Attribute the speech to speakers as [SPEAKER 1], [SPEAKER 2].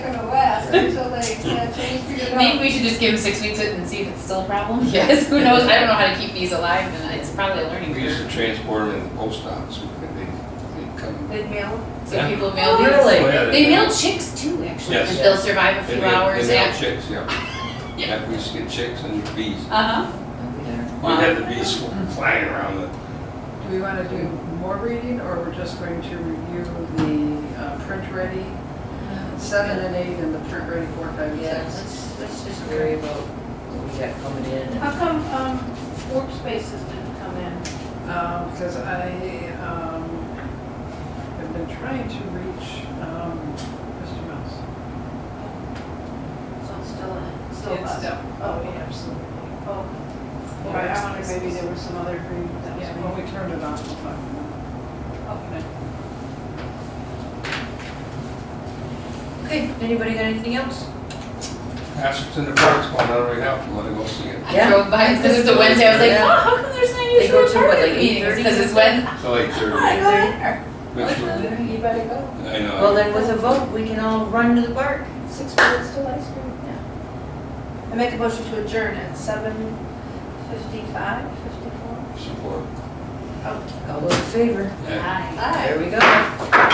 [SPEAKER 1] until they yeah, change figured
[SPEAKER 2] Maybe
[SPEAKER 1] out.
[SPEAKER 2] we should just give it six weeks and see if it's still a problem.
[SPEAKER 3] Yeah.
[SPEAKER 2] Because who knows? I don't know how to keep these alive, and it's probably a learning
[SPEAKER 4] We used
[SPEAKER 2] curve.
[SPEAKER 4] to transport them in the post office, and they, they come.
[SPEAKER 1] They mail.
[SPEAKER 2] So
[SPEAKER 4] Yeah.
[SPEAKER 2] people mail these.
[SPEAKER 3] Really?
[SPEAKER 4] Oh, yeah,
[SPEAKER 2] They mail chicks too, actually.
[SPEAKER 4] Yes.
[SPEAKER 2] and They'll survive a
[SPEAKER 4] They
[SPEAKER 2] few
[SPEAKER 4] mail-
[SPEAKER 2] hours.
[SPEAKER 4] They mail
[SPEAKER 2] yeah.
[SPEAKER 4] chicks, yeah.
[SPEAKER 2] Yeah.
[SPEAKER 4] Yeah, we used to get chicks and bees.
[SPEAKER 2] Uh huh.
[SPEAKER 4] We
[SPEAKER 2] Uh-huh.
[SPEAKER 4] had the bees flying around the
[SPEAKER 5] Do we want to do more reading, or we're just going to review the uh, print-ready, seven and eight, and the print-ready four, five, and
[SPEAKER 3] Yeah,
[SPEAKER 5] six?
[SPEAKER 3] let's, let's just worry about what we got coming in and.
[SPEAKER 1] How come, um, work spaces didn't come in?
[SPEAKER 5] Because I um, have been trying to reach um, Mr. Mouse.
[SPEAKER 1] So it's still in, still
[SPEAKER 5] It's
[SPEAKER 1] us.
[SPEAKER 5] still- Oh,
[SPEAKER 1] okay.
[SPEAKER 5] yeah, absolutely.
[SPEAKER 1] Oh, okay. Right, I wonder maybe there was some other agreement that was
[SPEAKER 5] Yeah,
[SPEAKER 1] made.
[SPEAKER 5] when we turned it off, we'll talk about
[SPEAKER 1] Okay.
[SPEAKER 3] Okay, anybody got anything else?
[SPEAKER 4] Asherton the Park's going on right now, if you wanna go see it.
[SPEAKER 2] I
[SPEAKER 3] Yeah.
[SPEAKER 2] drove by because it's a Wednesday. I was like,
[SPEAKER 3] Yeah.
[SPEAKER 2] oh, how come there's not
[SPEAKER 3] They go
[SPEAKER 2] usually a
[SPEAKER 3] till, what,
[SPEAKER 2] target
[SPEAKER 3] like
[SPEAKER 2] meeting?
[SPEAKER 3] 8:30
[SPEAKER 2] Because it's
[SPEAKER 3] or
[SPEAKER 2] Wednesday.
[SPEAKER 4] It's like
[SPEAKER 2] Oh, I
[SPEAKER 4] they're,
[SPEAKER 2] go in there.
[SPEAKER 4] which one-
[SPEAKER 1] You better go.
[SPEAKER 4] I
[SPEAKER 3] Well,
[SPEAKER 4] know,
[SPEAKER 3] then with a vote, we can all run to the park.
[SPEAKER 1] Six minutes till ice cream, yeah. I make a motion to adjourn at seven fifty-five, fifty-four.
[SPEAKER 4] support.
[SPEAKER 3] All those in favor?
[SPEAKER 4] Yeah.
[SPEAKER 2] Hi.
[SPEAKER 1] Aye.
[SPEAKER 3] There we go.